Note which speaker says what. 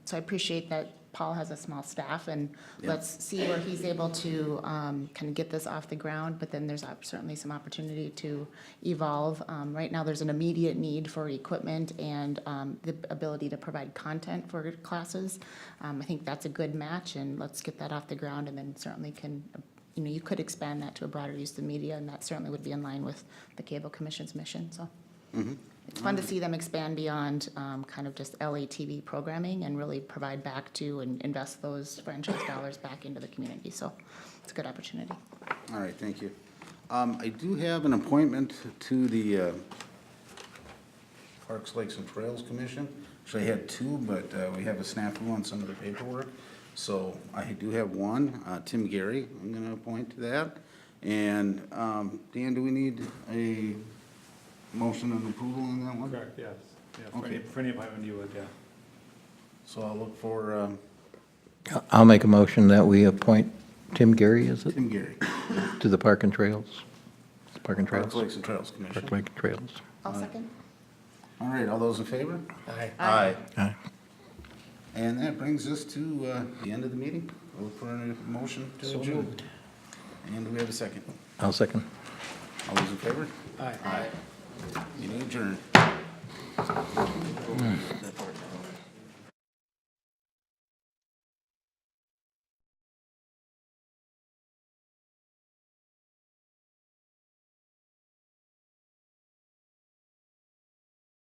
Speaker 1: So I appreciate that Paul has a small staff, and let's see where he's able to um, kind of get this off the ground, but then there's op- certainly some opportunity to evolve. Um, Right now, there's an immediate need for equipment and um, the ability to provide content for classes. Um, I think that's a good match, and let's get that off the ground, and then certainly can, you know, you could expand that to a broader use of the media, and that certainly would be in line with the Cable Commission's mission, so. It's fun to see them expand beyond um, kind of just LATV programming and really provide back to and invest those franchise dollars back into the community. So it's a good opportunity.
Speaker 2: All right, thank you. Um, I do have an appointment to the uh, Parks, Lakes, and Trails Commission. Actually, I had two, but uh, we have a snafu on some of the paperwork. So I do have one, uh, Tim Gary, I'm going to appoint to that. And um, Dan, do we need a motion and approval on that one?
Speaker 3: Correct, yes. Yeah, for
Speaker 2: Okay.
Speaker 3: any, for any appointment you would, yeah.
Speaker 2: So I'll look for um,
Speaker 4: I'll make a motion that we appoint Tim Gary, is it,
Speaker 2: Tim Gary,
Speaker 4: to the Park and Trails? Park and Trails?
Speaker 2: Parks, Lakes, and Trails Commission.
Speaker 4: Park Lake Trails.
Speaker 1: I'll second.
Speaker 2: All right, all those in favor? Aye.
Speaker 1: Aye.
Speaker 4: Aye.
Speaker 2: And that brings us to uh, the end of the meeting. We'll look for a motion to adjourn. And do we have a second?
Speaker 4: I'll second.
Speaker 2: All those in favor?
Speaker 3: Aye.
Speaker 2: Meeting adjourned.